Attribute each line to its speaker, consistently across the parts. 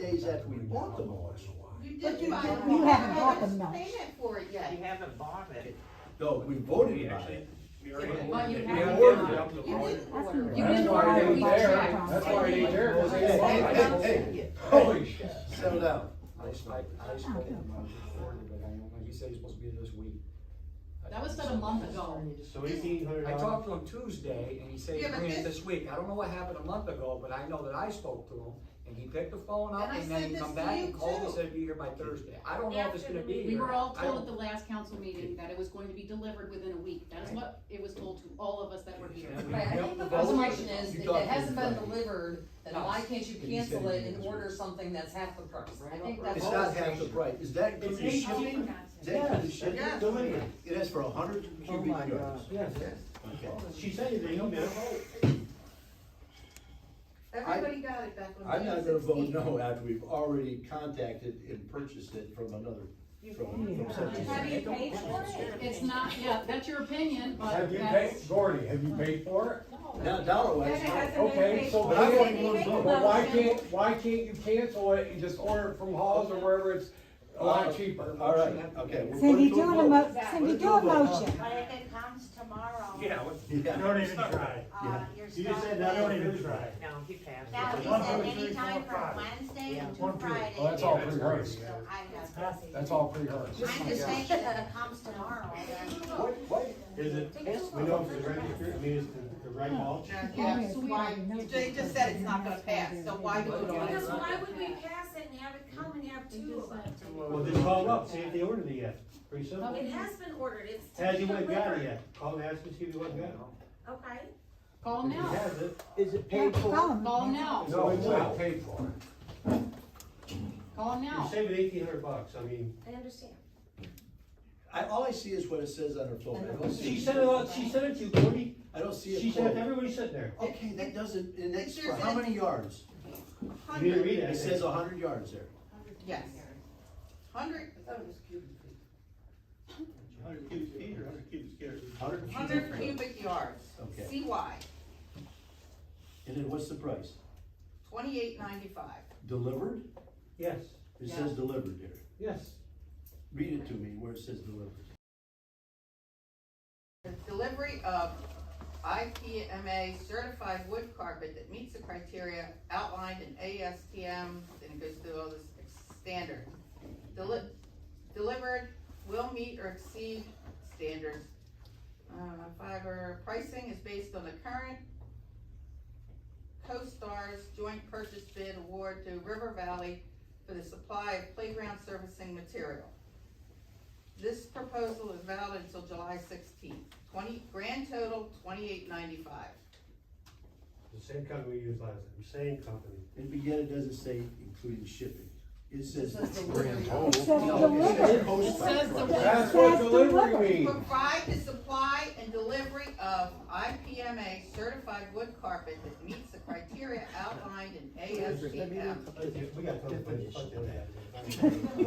Speaker 1: days after we bought the mulch.
Speaker 2: You
Speaker 1: But
Speaker 2: did
Speaker 1: you
Speaker 2: buy
Speaker 1: didn't-
Speaker 2: one.
Speaker 1: you
Speaker 3: haven't
Speaker 2: I
Speaker 3: bought
Speaker 2: haven't
Speaker 3: them, no.
Speaker 2: Paid for it yet.
Speaker 4: You haven't bought it.
Speaker 1: No, we voted
Speaker 4: We
Speaker 1: about
Speaker 4: actually,
Speaker 1: it.
Speaker 4: we already.
Speaker 2: Well, you
Speaker 4: ordered it.
Speaker 2: haven't
Speaker 4: We
Speaker 1: done
Speaker 4: ordered
Speaker 1: it.
Speaker 4: it.
Speaker 2: You didn't order
Speaker 3: That's what-
Speaker 2: it.
Speaker 5: You
Speaker 3: that's
Speaker 5: didn't
Speaker 3: what I
Speaker 5: order it, we
Speaker 3: checked
Speaker 5: checked.
Speaker 3: on.
Speaker 5: That's why you there,
Speaker 1: Hey,
Speaker 5: because they
Speaker 1: hey,
Speaker 2: bought
Speaker 1: hey,
Speaker 2: it.
Speaker 1: hey,
Speaker 6: Holy shit.
Speaker 1: Settle down.
Speaker 6: I spoke, I spoke to him before, but I don't, he said it's supposed to be this week.
Speaker 5: That was about a month ago.
Speaker 4: So eighteen hundred
Speaker 6: I
Speaker 4: dollars.
Speaker 6: talked to him Tuesday and he said he
Speaker 2: Yeah, but
Speaker 6: bring it
Speaker 2: this-
Speaker 6: this week. I don't know what happened a month ago, but I know that I spoke to him and he picked the phone up
Speaker 2: And I
Speaker 6: and then
Speaker 2: said
Speaker 6: he
Speaker 2: this
Speaker 6: come
Speaker 2: to
Speaker 6: back
Speaker 2: you
Speaker 6: and called and
Speaker 2: too.
Speaker 6: said it'd be here by Thursday. I don't know if it's gonna be here.
Speaker 5: We were all
Speaker 6: I
Speaker 5: told
Speaker 6: don't-
Speaker 5: at the last council meeting that it was going to be delivered within a week. That is what it was told to all of us that were here.
Speaker 7: Right, I think the first question is, if it hasn't been delivered, then why can't you cancel it and order something that's half the price? I think that's.
Speaker 1: It's not half the price. Is that including shipping? Is that including shipping?
Speaker 2: Yes.
Speaker 1: It is for a hundred
Speaker 7: Oh
Speaker 1: cubic yards.
Speaker 7: Yes.
Speaker 1: Okay.
Speaker 4: She sent you the email.
Speaker 2: Everybody got it back on
Speaker 1: I'm
Speaker 2: June
Speaker 1: not gonna vote
Speaker 2: 16th.
Speaker 1: no after we've already contacted and purchased it from another, from, from such and
Speaker 3: Have
Speaker 1: such.
Speaker 3: you paid for it?
Speaker 5: It's not, yeah, that's your opinion, but
Speaker 7: Have you paid,
Speaker 5: that's,
Speaker 7: Gordy, have you paid for
Speaker 1: Now, dollar
Speaker 3: That
Speaker 1: wise,
Speaker 3: hasn't
Speaker 7: it?
Speaker 3: been
Speaker 7: Okay,
Speaker 3: paid
Speaker 7: so
Speaker 3: for.
Speaker 1: I
Speaker 7: why,
Speaker 1: want
Speaker 3: They
Speaker 1: one
Speaker 3: make a
Speaker 1: vote.
Speaker 7: but why
Speaker 3: motion.
Speaker 7: can't, why can't you cancel it and just order it from Hawes or wherever it's a lot cheaper?
Speaker 1: all right, okay. we'll put it
Speaker 3: Cindy,
Speaker 1: to a
Speaker 3: do a
Speaker 1: vote.
Speaker 3: mo,
Speaker 1: Put
Speaker 3: Cindy,
Speaker 1: it
Speaker 3: do
Speaker 1: to
Speaker 3: a
Speaker 1: vote.
Speaker 3: motion.
Speaker 8: But if it comes tomorrow,
Speaker 4: Yeah. what-
Speaker 1: Yeah,
Speaker 9: Don't even try.
Speaker 8: uh, you're
Speaker 9: You just said
Speaker 8: starting.
Speaker 9: that, don't even try.
Speaker 4: No, he passed.
Speaker 8: Now,
Speaker 4: it.
Speaker 8: he
Speaker 9: One,
Speaker 8: said
Speaker 9: two, three,
Speaker 8: anytime
Speaker 9: four,
Speaker 8: from
Speaker 9: five.
Speaker 8: Wednesday
Speaker 4: Yeah.
Speaker 8: until Friday.
Speaker 7: Well, that's all
Speaker 8: So
Speaker 7: pre-rehearsed.
Speaker 8: I have,
Speaker 7: That's all pre-rehearsed.
Speaker 8: I'm just saying that it comes tomorrow, then.
Speaker 9: What, what? Is it, we know if it's registered, I mean, is the, the
Speaker 8: Hmm.
Speaker 9: right mulch?
Speaker 2: Yeah,
Speaker 3: Yeah,
Speaker 2: so
Speaker 3: it's
Speaker 2: why,
Speaker 3: wide enough.
Speaker 2: they just said it's not gonna pass, so why do it
Speaker 10: Because
Speaker 2: on?
Speaker 10: why would we pass it and have it come and have two of them?
Speaker 9: Well, just call them up, see if they ordered it yet, pretty simple.
Speaker 10: It has been ordered, it's.
Speaker 9: Has you went
Speaker 10: delivered.
Speaker 9: got it yet, call and ask them, see if you went and got it.
Speaker 10: Okay.
Speaker 5: call
Speaker 9: If he
Speaker 5: now,
Speaker 9: has it,
Speaker 6: Is it
Speaker 3: Yeah, call 'em.
Speaker 5: call now,
Speaker 7: No, it's not paid for.
Speaker 5: call
Speaker 9: you're
Speaker 5: now.
Speaker 9: saving eighteen hundred bucks, I mean,
Speaker 10: I understand.
Speaker 1: I, all I see is what it says on her phone. I don't see.
Speaker 9: she sent it out, she sent it to you, Gordy,
Speaker 1: I don't see
Speaker 9: she
Speaker 1: a
Speaker 9: sent it,
Speaker 1: quote.
Speaker 9: to everybody sitting there.
Speaker 1: Okay, that doesn't, and that's
Speaker 2: It
Speaker 1: for
Speaker 2: sure
Speaker 1: how
Speaker 2: says-
Speaker 1: many yards?
Speaker 9: You didn't
Speaker 2: Hundred,
Speaker 9: read it, I
Speaker 1: It
Speaker 9: think.
Speaker 1: says a hundred yards there.
Speaker 2: yes. Hundred,
Speaker 11: Hundred cubic feet or hundred cubic yards?
Speaker 1: Hundred and
Speaker 2: hundred
Speaker 1: fifty.
Speaker 2: cubic yards,
Speaker 1: Okay.
Speaker 2: CY,
Speaker 1: And then what's the price?
Speaker 2: twenty-eight ninety-five.
Speaker 1: Delivered?
Speaker 9: Yes,
Speaker 1: It
Speaker 2: Yeah.
Speaker 1: says delivered there.
Speaker 9: yes.
Speaker 1: Read it to me where it says delivered.
Speaker 2: Delivery of IPMA certified wood carpet that meets the criteria outlined in ASTM, and it goes through all this standard. Deli- Delivered will meet or exceed standards. Uh, fiber pricing is based on the current CoStar's joint purchase bid award to River Valley for the supply of playground servicing material. This proposal is valid until July sixteenth, twenty, grand total twenty-eight ninety-five.
Speaker 9: The same company we used last time, same company.
Speaker 1: And again, it doesn't say including shipping. It says.
Speaker 3: It says
Speaker 1: No, it says
Speaker 3: delivered.
Speaker 1: post
Speaker 5: It
Speaker 1: by post.
Speaker 5: says delivered.
Speaker 7: That's what
Speaker 3: That's
Speaker 7: delivery
Speaker 3: delivered.
Speaker 7: means.
Speaker 2: Provide the supply and delivery of IPMA certified wood carpet that meets the criteria outlined in ASTM,
Speaker 9: We got to fuck that.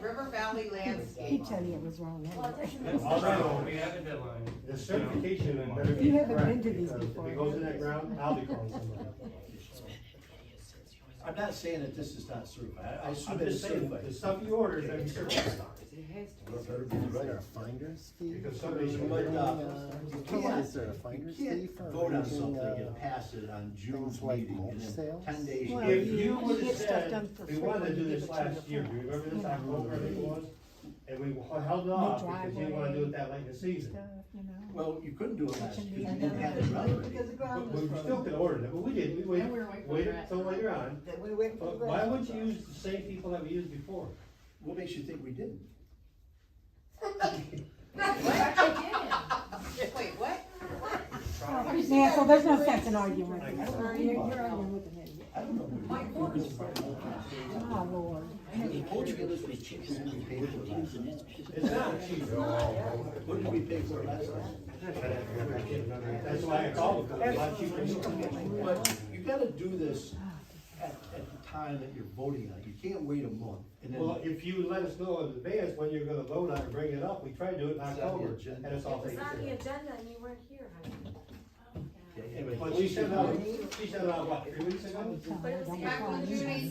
Speaker 2: River Valley
Speaker 3: He
Speaker 2: Landscape.
Speaker 3: tell you it was wrong.
Speaker 10: Well,
Speaker 3: anyway.
Speaker 10: it doesn't make sense.
Speaker 9: Also,
Speaker 4: We have a deadline.
Speaker 9: the certification and better
Speaker 3: You
Speaker 9: be
Speaker 3: haven't been
Speaker 9: correct,
Speaker 3: to these
Speaker 9: because if
Speaker 3: before.
Speaker 9: it goes in that ground, I'll be calling somebody.
Speaker 1: I'm not saying that this is not certified. I I assume
Speaker 9: I'm
Speaker 1: it's
Speaker 9: just saying, the
Speaker 1: certified.
Speaker 9: stuff you ordered, is gonna be certified.
Speaker 1: Well, better be right.
Speaker 9: Because somebody's.
Speaker 1: But, uh, you
Speaker 12: What
Speaker 1: can't,
Speaker 12: is there, a
Speaker 1: you
Speaker 12: finder's fee
Speaker 1: can't
Speaker 12: for
Speaker 1: vote on
Speaker 12: arranging,
Speaker 1: something
Speaker 12: uh,
Speaker 1: and pass it on June's
Speaker 12: things like
Speaker 1: meeting
Speaker 12: mulch
Speaker 1: and then
Speaker 12: sales?
Speaker 1: ten days.
Speaker 3: Well,
Speaker 9: If
Speaker 1: later-
Speaker 3: you-
Speaker 9: you
Speaker 3: you
Speaker 9: would've
Speaker 3: get stuff done
Speaker 9: said,
Speaker 3: for
Speaker 9: we
Speaker 3: free
Speaker 9: wanted
Speaker 3: when
Speaker 9: to do
Speaker 3: you
Speaker 9: this
Speaker 3: give it to
Speaker 9: last
Speaker 3: the
Speaker 9: year, do
Speaker 3: friends,
Speaker 9: you remember
Speaker 3: you
Speaker 9: this,
Speaker 3: know,
Speaker 9: October, I think it
Speaker 3: the
Speaker 9: was? And we held off because you didn't wanna do
Speaker 3: driveway.
Speaker 9: it that late in the season.
Speaker 3: Stuff, you know.
Speaker 1: Well, you couldn't do it last
Speaker 3: Kitchen
Speaker 1: because you
Speaker 3: being
Speaker 1: didn't have it right.
Speaker 2: Because the ground
Speaker 9: But we still could order it, but we didn't, we
Speaker 5: And we were waiting
Speaker 9: waited,
Speaker 5: for
Speaker 9: waited
Speaker 5: that.
Speaker 9: till later on.
Speaker 3: We waited
Speaker 9: But why would you use the same people that we used before?
Speaker 1: What makes you think we didn't?
Speaker 2: Wait, what?
Speaker 3: Yeah, so there's no sense in arguing with him.
Speaker 1: I
Speaker 3: You're,
Speaker 1: don't
Speaker 3: you're
Speaker 1: know.
Speaker 3: arguing with him anyway.
Speaker 1: I don't know. My quarters. The
Speaker 3: Oh, Lord.
Speaker 1: Portuguese was cheaper than we paid for last time.
Speaker 9: It's not cheap.
Speaker 1: What did we pay for last time?
Speaker 9: That's why I called them, a lot cheaper.
Speaker 1: But you gotta do this at, at the time that you're voting on. it. You can't wait a month and
Speaker 9: Well,
Speaker 1: then.
Speaker 9: if you let us know in advance when you're gonna vote on it, bring it up, we try to do it in
Speaker 1: It's on the
Speaker 9: October, and
Speaker 1: agenda.
Speaker 9: it's all
Speaker 10: It's
Speaker 9: taken
Speaker 10: on the
Speaker 9: care
Speaker 10: agenda and you weren't here, honey.
Speaker 1: Anyway,
Speaker 9: of. But uh, she sent it out, she sent it out, what, three weeks ago?
Speaker 10: But it was
Speaker 3: Don't
Speaker 10: back
Speaker 3: call
Speaker 10: when
Speaker 3: me.
Speaker 10: Judy